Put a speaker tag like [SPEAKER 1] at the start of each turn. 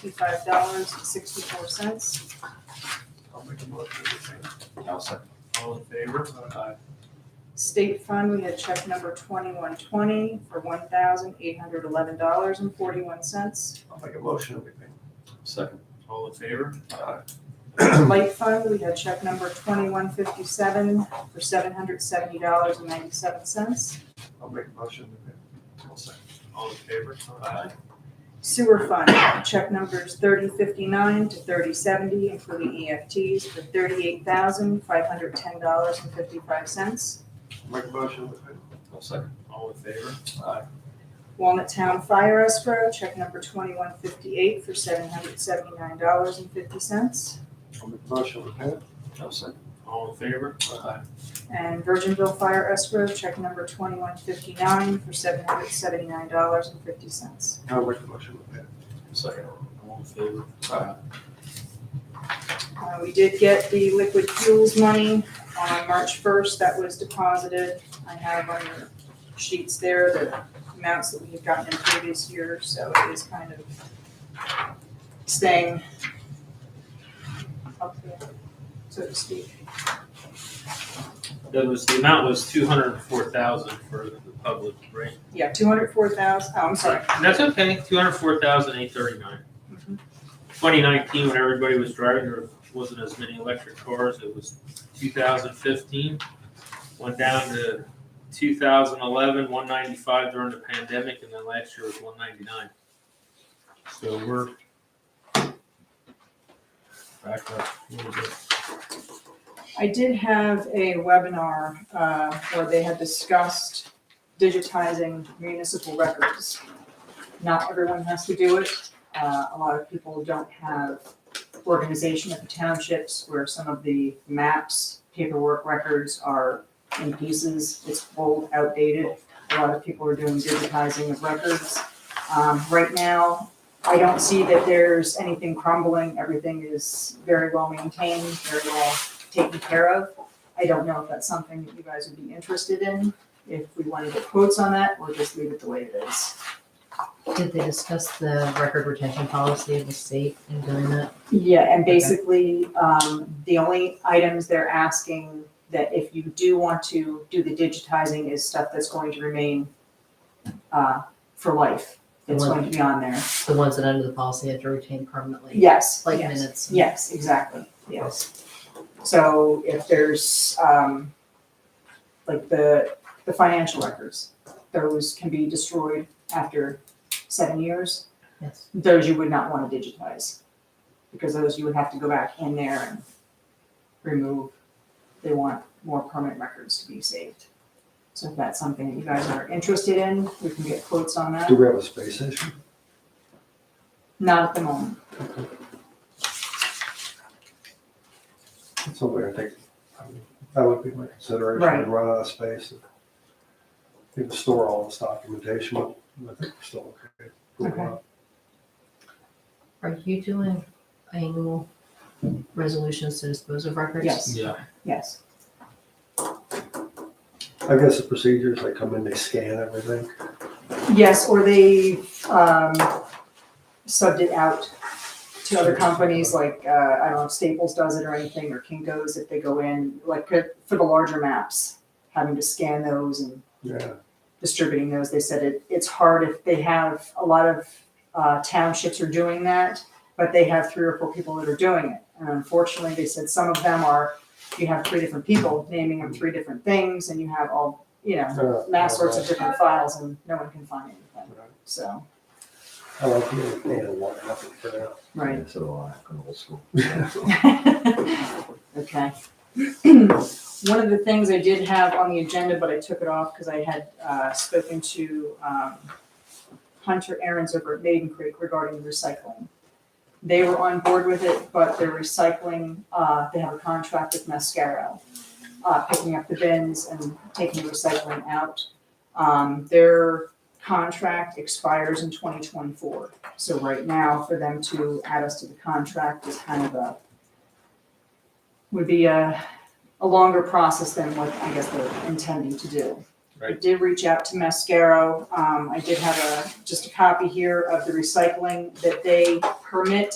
[SPEAKER 1] sixty-five dollars and sixty-four cents.
[SPEAKER 2] I'll make a motion to approve.
[SPEAKER 3] I'll second.
[SPEAKER 2] All in favor? Aye.
[SPEAKER 1] State fund, we had check number twenty-one twenty for one thousand eight hundred eleven dollars and forty-one cents.
[SPEAKER 3] I'll make a motion to approve. Second.
[SPEAKER 2] All in favor?
[SPEAKER 3] Aye.
[SPEAKER 1] Light fund, we had check number twenty-one fifty-seven for seven hundred seventy dollars and ninety-seven cents.
[SPEAKER 3] I'll make a motion to approve. I'll second.
[SPEAKER 2] All in favor? Aye.
[SPEAKER 1] Sewer fund, check numbers thirty fifty-nine to thirty seventy, including EFTs, for thirty-eight thousand five hundred ten dollars and fifty-five cents.
[SPEAKER 3] I'll Make a motion to approve. I'll second.
[SPEAKER 2] All in favor?
[SPEAKER 3] Aye.
[SPEAKER 1] Walnut Town Fire Escrow, check number twenty-one fifty-eight for seven hundred seventy-nine dollars and fifty cents.
[SPEAKER 3] I'll make a motion to approve. I'll second.
[SPEAKER 2] All in favor?
[SPEAKER 3] Aye.
[SPEAKER 1] And Virginville Fire Escrow, check number twenty-one fifty-nine for seven hundred seventy-nine dollars and fifty cents.
[SPEAKER 3] I'll make a motion to approve. Second.
[SPEAKER 2] All in favor?
[SPEAKER 3] Aye.
[SPEAKER 1] Uh, we did get the liquid fuels money on March first, that was deposited. I have on your sheets there the amounts that we had gotten in previous years, so it is kind of staying up there, so to speak.
[SPEAKER 2] That was, the amount was two hundred and four thousand for the public, right?
[SPEAKER 1] Yeah, two hundred four thousand, oh, I'm sorry.
[SPEAKER 2] That's okay, two hundred four thousand eight thirty-nine.
[SPEAKER 1] Mhm.
[SPEAKER 2] Twenty nineteen, when everybody was driving, there wasn't as many electric cars, it was two thousand fifteen. Went down to two thousand eleven, one ninety-five during the pandemic, and then last year was one ninety-nine. So we're back up a little bit.
[SPEAKER 1] I did have a webinar, uh, where they had discussed digitizing municipal records. Not everyone has to do it. Uh, a lot of people don't have organization at the townships where some of the maps, paperwork records are in pieces. It's old, outdated. A lot of people are doing digitizing of records. Um, right now, I don't see that there's anything crumbling. Everything is very well maintained, very well taken care of. I don't know if that's something that you guys would be interested in, if we want to get quotes on that, or just leave it the way it is.
[SPEAKER 4] Did they discuss the record retention policy of the state in doing that?
[SPEAKER 1] Yeah, and basically, um, the only items they're asking that if you do want to do the digitizing is stuff that's going to remain, uh, for life. It's going to be on there.
[SPEAKER 4] The ones that under the policy had to retain permanently,
[SPEAKER 1] Yes,
[SPEAKER 4] like
[SPEAKER 1] yes.
[SPEAKER 4] minutes?
[SPEAKER 1] Yes, exactly, yes. So if there's, um, like the, the financial records, those can be destroyed after seven years.
[SPEAKER 4] Yes.
[SPEAKER 1] Those you would not wanna digitize, because those you would have to go back in there and remove. They want more permanent records to be saved. So if that's something that you guys are interested in, we can get quotes on that,
[SPEAKER 3] we have a space issue?
[SPEAKER 1] not at the moment.
[SPEAKER 3] That's something I think, I mean, that would be my consideration,
[SPEAKER 1] Right.
[SPEAKER 3] to run out of space. and People store all this documentation, but I think we're still okay. We're
[SPEAKER 1] Okay.
[SPEAKER 3] not-
[SPEAKER 4] Are you doing annual resolutions to dispose of records?
[SPEAKER 1] Yes.
[SPEAKER 2] Yeah.
[SPEAKER 1] Yes,
[SPEAKER 3] I guess the procedures, they come in, they scan everything.
[SPEAKER 1] yes, or they, um, subbed it out to other companies, like, uh, I don't know if Staples does it or anything, or Kinko's, if they go in, like, uh, for the larger maps, having to scan those and
[SPEAKER 3] Yeah,
[SPEAKER 1] distributing those, they said it, it's hard if they have, a lot of, uh, townships are doing that, but they have three or four people that are doing it, and unfortunately, they said some of them are, you have three different people naming them three different things, and you have all, you know,
[SPEAKER 3] uh,
[SPEAKER 1] mass sorts of different files and no one can find anything, so,
[SPEAKER 3] I like the independent one, nothing for now.
[SPEAKER 1] right.
[SPEAKER 5] So do I, I'm old school.
[SPEAKER 1] Okay. One of the things I did have on the agenda, but I took it off because I had uh, spoken to um, Hunter Aaron's over at Maiden Creek regarding recycling. They were on board with it, but they're recycling, uh, they have a contract with Mascaro, uh, picking up the bins and taking the recycling out. Um, Their contract expires in 2024. So right now, for them to add us to the contract is kind of a would be a, a longer process than what I guess they're intending to do. I
[SPEAKER 2] Right.
[SPEAKER 1] did reach out to Mascaro. Um, I did have a, just a copy here of the recycling that they permit